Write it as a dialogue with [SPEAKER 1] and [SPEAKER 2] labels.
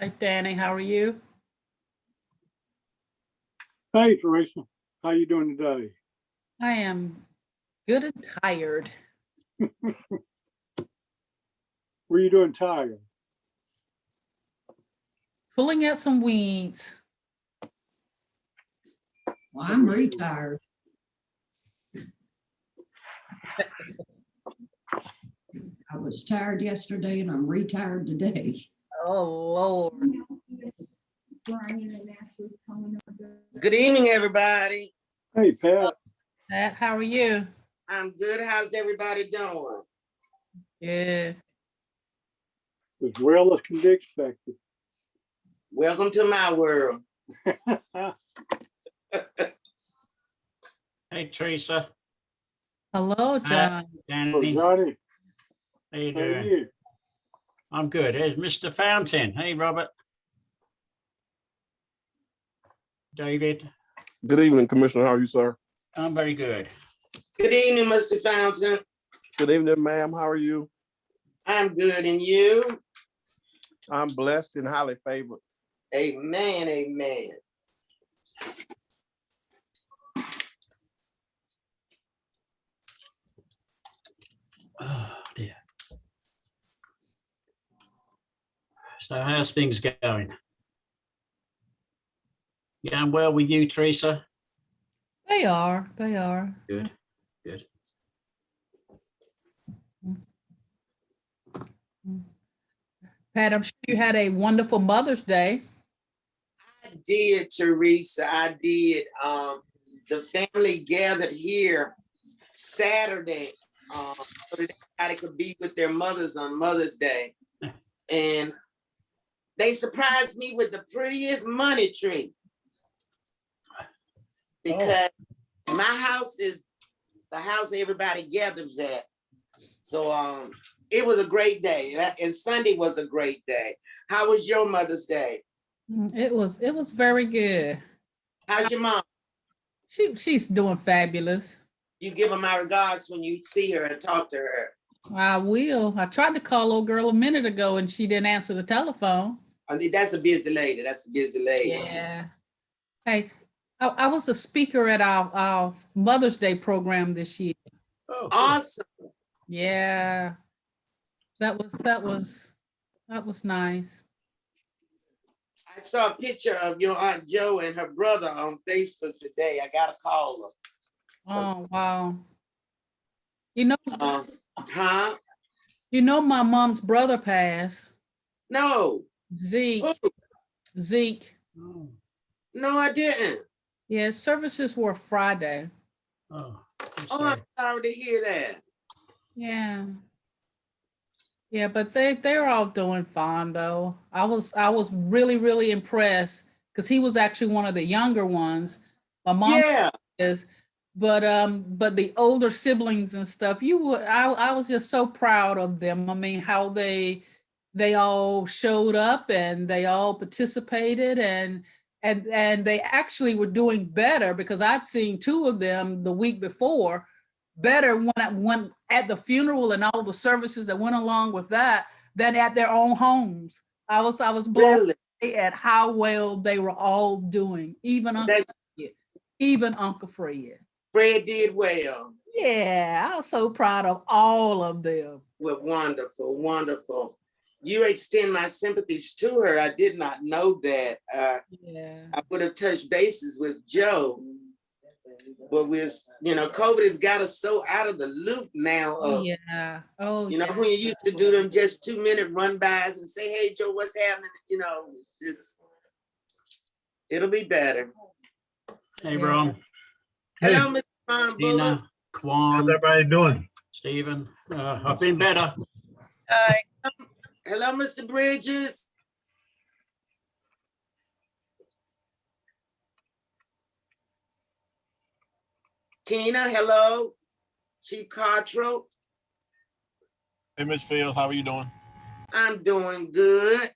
[SPEAKER 1] Hi, Danny. How are you?
[SPEAKER 2] Hey, Teresa, how you doing today?
[SPEAKER 1] I am good and tired.
[SPEAKER 2] Were you doing tired?
[SPEAKER 1] Pulling out some weeds.
[SPEAKER 3] Well, I'm retired. I was tired yesterday and I'm retired today.
[SPEAKER 1] Oh, Lord.
[SPEAKER 4] Brian and Ashley's coming up there.
[SPEAKER 5] Good evening, everybody.
[SPEAKER 2] Hey, Pat,
[SPEAKER 1] Pat, how are you?
[SPEAKER 5] I'm good. How's everybody doing?
[SPEAKER 1] Good.
[SPEAKER 2] as well as can be expected.
[SPEAKER 5] Welcome to my world.
[SPEAKER 6] Hey Teresa,
[SPEAKER 1] Hello, John.
[SPEAKER 2] So
[SPEAKER 6] Danny, how
[SPEAKER 2] Johnny,
[SPEAKER 6] you
[SPEAKER 2] how are
[SPEAKER 6] doing?
[SPEAKER 2] you?
[SPEAKER 6] I'm good. There's Mr. Fountain. Hey, Robert. David,
[SPEAKER 7] Good evening, Commissioner. How are you, sir?
[SPEAKER 6] I'm very good.
[SPEAKER 5] Good evening, Mr. Fountain.
[SPEAKER 7] Good evening, ma'am. How are you?
[SPEAKER 5] I'm good, and you?
[SPEAKER 7] I'm blessed and highly favored.
[SPEAKER 5] Amen, amen.
[SPEAKER 6] Oh dear. So how's things going? Going well with you, Teresa?
[SPEAKER 1] They are. They are.
[SPEAKER 6] Good, good.
[SPEAKER 1] Pat, I'm sure you had a wonderful Mother's Day.
[SPEAKER 5] I did, Teresa. I did. Um, the family gathered here Saturday um, so that everybody could be with their mothers on Mother's Day. And they surprised me with the prettiest money tree. Because my house is the house everybody gathers at. So um, it was a great day. and I- And Sunday was a great day. How was your Mother's Day?
[SPEAKER 1] Mm, It was it was very good.
[SPEAKER 5] How's your mom?
[SPEAKER 1] She she's doing fabulous.
[SPEAKER 5] you give her my regards when you see her and talk to her.
[SPEAKER 1] I will. I tried to call old girl a minute ago and she didn't answer the telephone.
[SPEAKER 5] I mean, that's a busy lady. That's a busy lady.
[SPEAKER 1] Yeah. Hey, I, I was a speaker at our, our Mother's Day program this year.
[SPEAKER 6] Oh, cool.
[SPEAKER 5] Awesome.
[SPEAKER 1] Yeah. That was, that was, that was nice.
[SPEAKER 5] I saw a picture of your Aunt Joe and her brother on Facebook today. I gotta call
[SPEAKER 1] Oh, wow. You know,
[SPEAKER 5] her. Um, huh?
[SPEAKER 1] you know, my mom's brother passed,
[SPEAKER 5] No,
[SPEAKER 1] Zeke, Zeke.
[SPEAKER 6] Oh,
[SPEAKER 5] no, I didn't.
[SPEAKER 1] Yeah, his services were Friday.
[SPEAKER 6] oh,
[SPEAKER 5] Oh,
[SPEAKER 6] I'm
[SPEAKER 5] I'm
[SPEAKER 6] sorry.
[SPEAKER 5] sorry to hear that.
[SPEAKER 1] Yeah. Yeah, but they, they're all doing fine though. I was, I was really, really impressed because he was actually one of the younger ones. My mom
[SPEAKER 5] Yeah,
[SPEAKER 1] is, but, um, but the older siblings and stuff, you would, I, I was just so proud of them. I mean, how they, they all showed up and they all participated and, and, and they actually were doing better because I'd seen two of them the week before better when at when at the funeral and all the services that went along with that than at their own homes. I was I was blown
[SPEAKER 5] really.
[SPEAKER 1] away at how well they were all doing, even Uncle,
[SPEAKER 5] That's
[SPEAKER 1] even Uncle Fred.
[SPEAKER 5] Fred did well.
[SPEAKER 1] Yeah, I was so proud of all of them.
[SPEAKER 5] Well, wonderful, wonderful. You extend my sympathies to her. I did not know that. Uh,
[SPEAKER 1] Yeah.
[SPEAKER 5] I would have touched bases with Joe. But we're, s- you know, COVID has got us so out of the loop now.
[SPEAKER 1] Oh,
[SPEAKER 5] Of,
[SPEAKER 1] yeah. Oh
[SPEAKER 5] You know,
[SPEAKER 1] yeah.
[SPEAKER 5] when you used to do them just two minute run bys and say, hey, Joe, what's happening? You know, it's just, it'll be better.
[SPEAKER 6] Hey,
[SPEAKER 1] Yeah.
[SPEAKER 6] Ron,
[SPEAKER 5] Hello, Mr. Ron Buller.
[SPEAKER 6] Tina, Kwan,
[SPEAKER 8] How's everybody doing?
[SPEAKER 6] Stephen. Uh, I've been better.
[SPEAKER 5] Hello, Mr. Bridges. Tina, hello. Chief Cottrell,
[SPEAKER 7] Hey, Ms. Fields, how are you doing?
[SPEAKER 5] I'm doing good.